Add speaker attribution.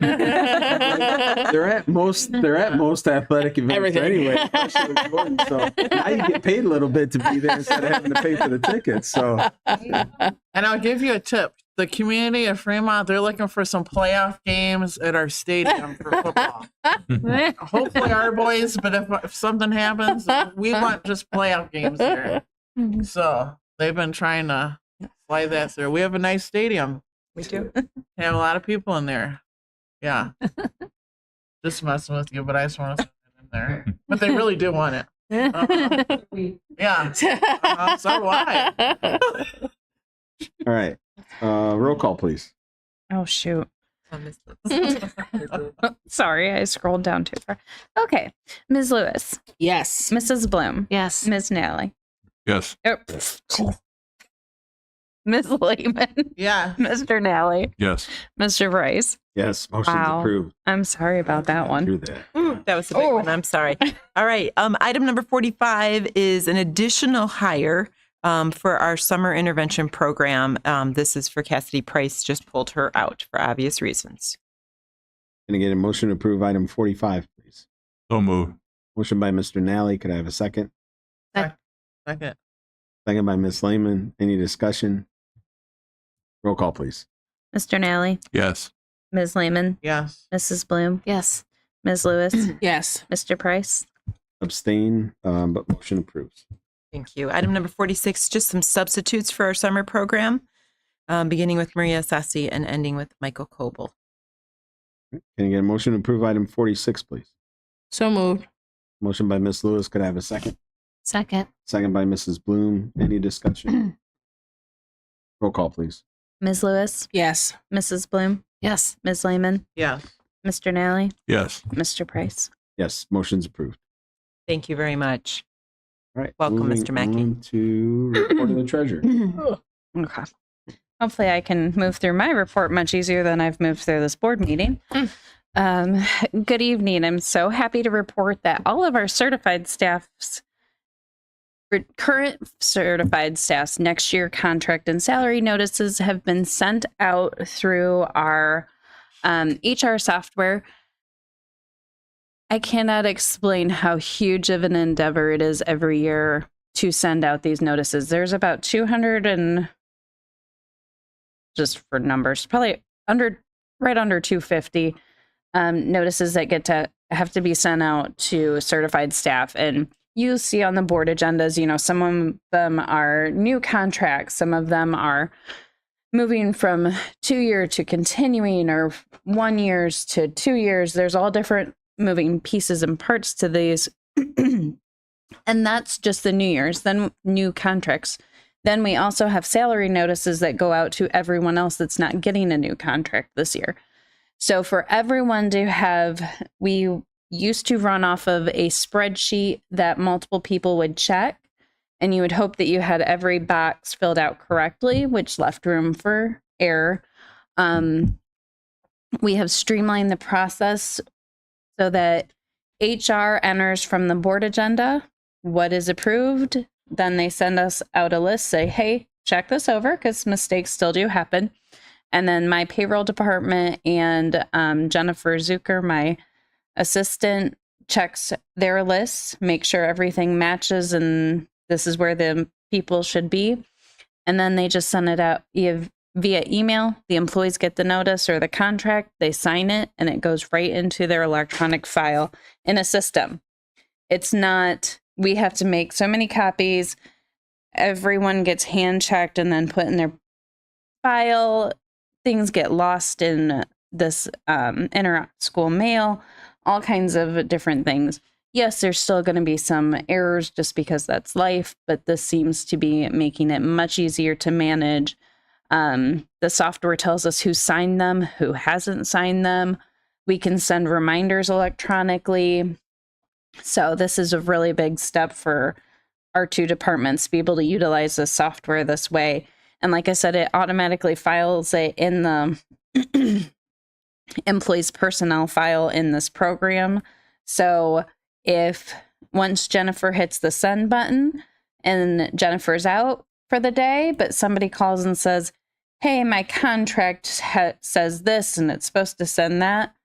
Speaker 1: they're at most they're at most athletic events
Speaker 2: Everything.
Speaker 1: anyway. especially with Jordan. So now you get paid a little bit to be there instead of having to pay for the tickets. So
Speaker 3: And I'll give you a tip. The community of Fremont, they're looking for some playoff games at our stadium for football. Hopefully our boys, but if, if something happens, we want just playoff games there. So they've been trying to fly that through. We have a nice stadium.
Speaker 4: We do.
Speaker 3: They have a lot of people in there. Yeah. just messing with you, but I just want to in there. But they really do want it. Yeah. Uh, Uh-huh. so do I.
Speaker 1: all right. Uh roll call please.
Speaker 4: Oh, shoot. Sorry, I scrolled down too far. Okay. Ms. Lewis,
Speaker 2: yes.
Speaker 4: Mrs. Bloom,
Speaker 5: Yes.
Speaker 4: Ms. Nally,
Speaker 6: Yes.
Speaker 4: oh, jeez. Ms. Lehman,
Speaker 3: Yeah.
Speaker 4: Mr. Nally,
Speaker 6: Yes.
Speaker 4: Mr. Bryce.
Speaker 1: Yes, motion's
Speaker 4: Wow.
Speaker 1: approved.
Speaker 4: I'm sorry about that one.
Speaker 1: Through that.
Speaker 7: That was a big one. I'm sorry. All right. Um, item number 45 is an additional hire um, for our summer intervention program. Um, this is for Cassidy Price, just pulled her out for obvious reasons.
Speaker 1: Gonna get a motion to approve item forty five, please.
Speaker 6: So moved.
Speaker 1: Motion by Mr. Nally. Could I have a second?
Speaker 3: Second.
Speaker 1: Second by Ms. Lehman. Any discussion? Roll call, please.
Speaker 4: Mr. Nally,
Speaker 6: Yes.
Speaker 4: Ms. Lehman,
Speaker 3: Yes.
Speaker 4: Mrs. Bloom,
Speaker 5: Yes.
Speaker 4: Ms. Lewis,
Speaker 2: Yes.
Speaker 4: Mr. Price.
Speaker 1: Abstain, um, but motion approves.
Speaker 7: Thank you. Item number 46, just some substitutes for our summer program, um, beginning with Maria Sassi and ending with Michael Koble.
Speaker 1: Can I get a motion to approve item forty six, please?
Speaker 2: So moved.
Speaker 1: Motion by Ms. Lewis. Could I have a second?
Speaker 5: Second.
Speaker 1: Second by Mrs. Bloom. Any discussion? Roll call, please.
Speaker 4: Ms. Lewis,
Speaker 2: Yes.
Speaker 4: Mrs. Bloom,
Speaker 5: Yes.
Speaker 4: Ms. Lehman,
Speaker 3: Yes.
Speaker 4: Mr. Nally,
Speaker 6: Yes.
Speaker 4: Mr. Price.
Speaker 1: Yes, motion's approved.
Speaker 7: Thank you very much.
Speaker 1: All right.
Speaker 7: Welcome,
Speaker 1: moving
Speaker 7: Mr. Mackey.
Speaker 1: on To report of the treasurer.
Speaker 4: Okay. Hopefully, I can move through my report much easier than I've moved through this board meeting. Um, good evening. I'm so happy to report that all of our certified staffs, re- current certified staffs, next year contract and salary notices have been sent out through our um, HR software. I cannot explain how huge of an endeavor it is every year to send out these notices. There's about 200 and just for numbers, probably under right under 250 um, notices that get to have to be sent out to certified staff. And you see on the board agendas, you know, some of them are new contracts, some of them are moving from two year to continuing or one years to two years. There's all different moving pieces and parts to these. And that's just the new year's, then new contracts. Then we also have salary notices that go out to everyone else that's not getting a new contract this year. So for everyone to have, we used to run off of a spreadsheet that multiple people would check. And you would hope that you had every box filled out correctly, which left room for error. Um, we have streamlined the process so that HR enters from the board agenda what is approved. Then they send us out a list, say, hey, check this over because mistakes still do happen. And then my payroll department and um, Jennifer Zucker, my assistant, checks their lists, make sure everything matches and this is where the people should be. And then they just send it out e- via email. The employees get the notice or the contract, they sign it, and it goes right into their electronic file in a system it's not we have to make so many copies everyone gets hand checked and then put in their file things get lost in this um, inter school mail all kinds of different things yes there's still going to be some errors just because that's life but this seems to be making it much easier to manage um, the software tells us who signed them who hasn't signed them we can send reminders electronically so this is a really big step for our two departments to be able to utilize this software this way. And like I said, it automatically files it in the employees personnel file in this program. So if once Jennifer hits the send button and Jennifer's out for the day, but somebody calls and says, hey, my contract ha- says this and it's supposed to send that.